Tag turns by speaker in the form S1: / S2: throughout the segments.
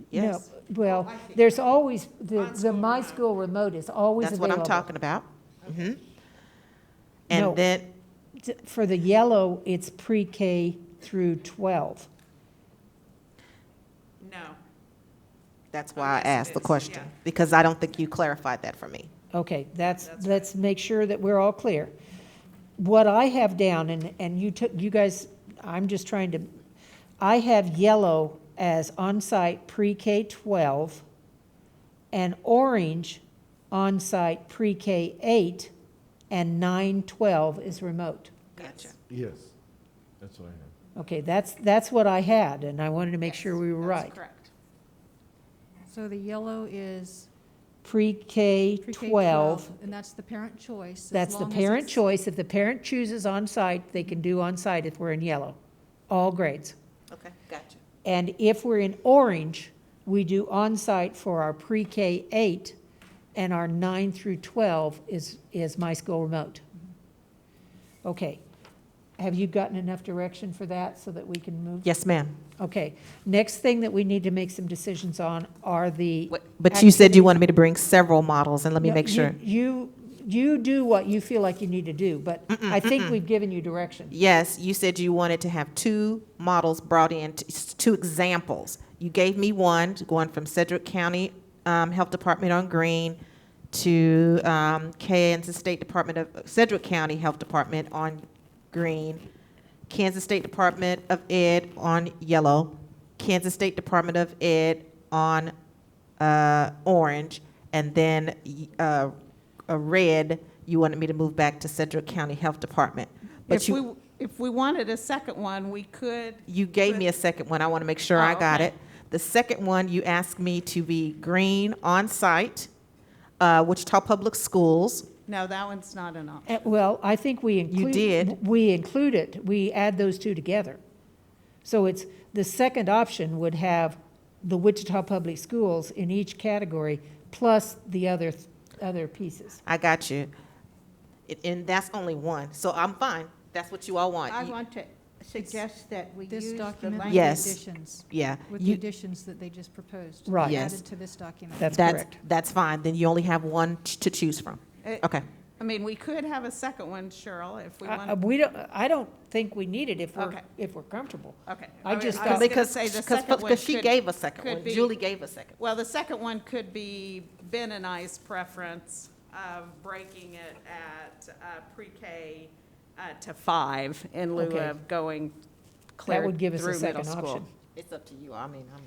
S1: No,
S2: yes.
S1: well,
S3: I think-
S1: there's always, the,
S3: On
S1: the
S3: school
S1: My
S3: ground.
S1: School Remote is always
S2: That's what
S1: available.
S2: I'm talking about. Mhm.
S1: No.
S2: And then,
S1: T- For the yellow, it's pre-K through 12.
S3: No.
S2: that's why I
S3: Yes, it
S2: asked the
S3: is,
S2: question,
S3: yeah.
S2: because I don't think you clarified that for me.
S1: Okay, that's,
S3: That's right.
S1: let's make sure that we're all clear. What I have down, and, and you took, you guys, I'm just trying to, I have yellow as on-site pre-K 12 and orange on-site pre-K 8 and 9, 12 is remote.
S3: Gotcha.
S4: Yes, that's what I have.
S1: Okay, that's, that's what I had, and I wanted to make sure we were right.
S3: That's correct.
S5: So the yellow is
S1: Pre-K
S5: pre-K
S1: 12,
S5: 12, and that's the parent choice. as
S1: that's the
S5: long as
S1: parent
S5: it's-
S1: choice. If the parent chooses on-site, they can do on-site if we're in yellow, all grades.
S2: Okay, gotcha.
S1: And if we're in orange, we do on-site for our pre-K eight, and our nine through twelve is, is My School Remote.
S5: Mm-hmm.
S1: Okay. Have you gotten enough direction for that so that we can move?
S2: Yes, ma'am.
S1: Okay. Next thing that we need to make some decisions on are the.
S2: But you said you wanted me to bring several models, and let me
S1: No,
S2: make
S1: you-
S2: sure.
S1: You, you do what you feel like you need to do, but I think we've given you direction.
S2: Yes, you said you wanted to have two models brought in, t- s- two examples. You gave me one, going from Cedric County um, Health Department on Green to um, Kansas State Department of, Cedric County Health Department on green, Kansas State Department of Ed on yellow, Kansas State Department of Ed on uh, orange, and then y- uh, a red, you wanted me to move back to Cedric County Health Department. But
S3: If
S2: you
S3: we, if we wanted a second one, we could,
S2: you gave me a second one. I want to make sure I
S3: Oh,
S2: got
S3: okay.
S2: it. The second one, you asked me to be green on-site, uh, Wichita Public Schools.
S3: no, that one's not an option.
S1: Uh, Well, I think we include.
S2: did.
S1: We include it, we add those two together. So it's, the second option would have the Wichita Public Schools in each category, plus the other, th- other pieces.
S2: I got you. It- And that's only one, so I'm fine. That's what you all want.
S6: I
S2: You-
S6: want to suggest that we use
S5: This
S6: the
S5: document with the
S6: language.
S2: Yes.
S5: additions,
S2: Yeah.
S5: with the
S2: you-
S5: additions that they just proposed.
S1: Right.
S2: Yes.
S5: Added to this document.
S1: That's
S2: That's,
S1: correct.
S2: that's fine. Then you only have one ch- to choose from.
S3: It-
S2: Okay.
S3: Uh, I mean, we could have a second one, Cheryl, if we
S1: I- I-
S3: want,
S1: We don't, I don't think we need it if we're,
S3: Okay.
S1: if we're comfortable.
S3: okay.
S1: I
S3: was-
S1: just
S3: I was
S1: thought-
S3: gonna
S2: Because,
S3: say the
S2: because,
S3: second one
S2: because she
S3: could-
S2: gave a second
S3: could
S2: one.
S3: be-
S2: Julie gave a second.
S3: Well, the second one could be Ben and I's preference of breaking it at uh, pre-K uh, to five in lieu
S1: Okay.
S3: of going
S1: That
S3: clear
S1: would give us a
S3: through
S1: second
S3: middle school.
S1: option.
S2: It's up to you. I mean, I'm.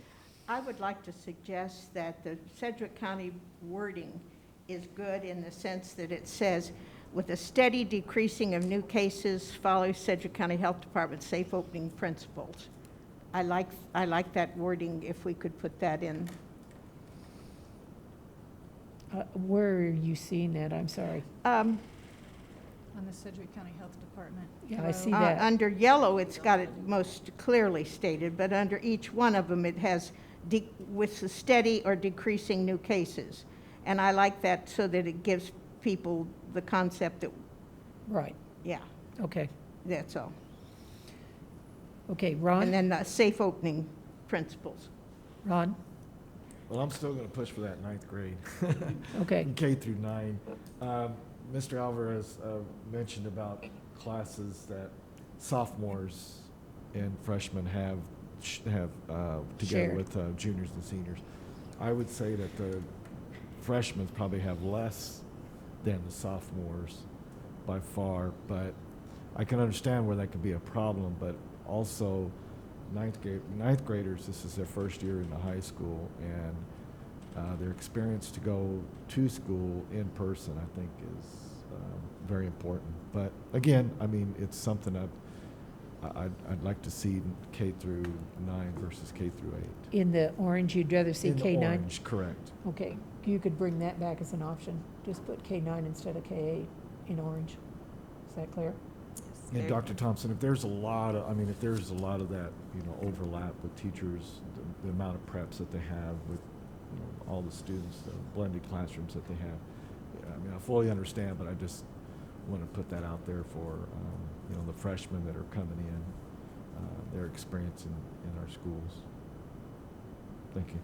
S6: I would like to suggest that the Sedgwick County wording is good in the sense that it says, with a steady decreasing of new cases, follow Sedgwick County Health Department's safe opening principles. I like, I like that wording, if we could put that in.
S1: Uh, Where are you seeing that? I'm sorry.
S6: Um,
S5: On the Sedgwick County Health Department.
S1: Yeah, I
S5: Yellow.
S1: see.
S6: Uh,
S1: that.
S6: Under yellow, it's got it most clearly stated, but under each one of them, it has de- with the steady or decreasing new cases. And I like that so that it gives people the concept that,
S1: Right,
S6: yeah,
S1: okay,
S6: that's all.
S1: okay,
S6: And
S1: Ron,
S6: then the safe opening principles.
S1: Ron,
S4: Well, I'm still gonna push for that ninth grade,
S1: okay,
S4: K through nine. Um, Mr. Alvarez uh, mentioned about classes that sophomores and freshmen have, sh- have uh, together
S1: Shared.
S4: with uh, juniors and seniors. I would say that the freshmen probably have less than the sophomores by far, but I can understand where that could be a problem, but also ninth grade, ninth graders, this is their first year in the high school and uh, their experience to go to school in person, I think is um, very important. But again, I mean, it's something I'd, I- I'd, I'd like to see K through nine versus K through eight.
S1: in the orange, you'd rather see
S4: In
S1: K nine?
S4: orange, Correct.
S1: Okay, you could bring that back as an option, just put K nine instead of K eight in orange, is that clear?
S4: And Dr. Thompson, if there's a lot of, I mean, if there's a lot of that, you know, overlap with teachers, the, the amount of preps that they have with, you know, all the students, the blended classrooms that they have. yeah, I mean, I fully understand, but I just want to put that out there for, um, you know, the freshmen that are coming in, uh, their experience in, in our schools. Thank you.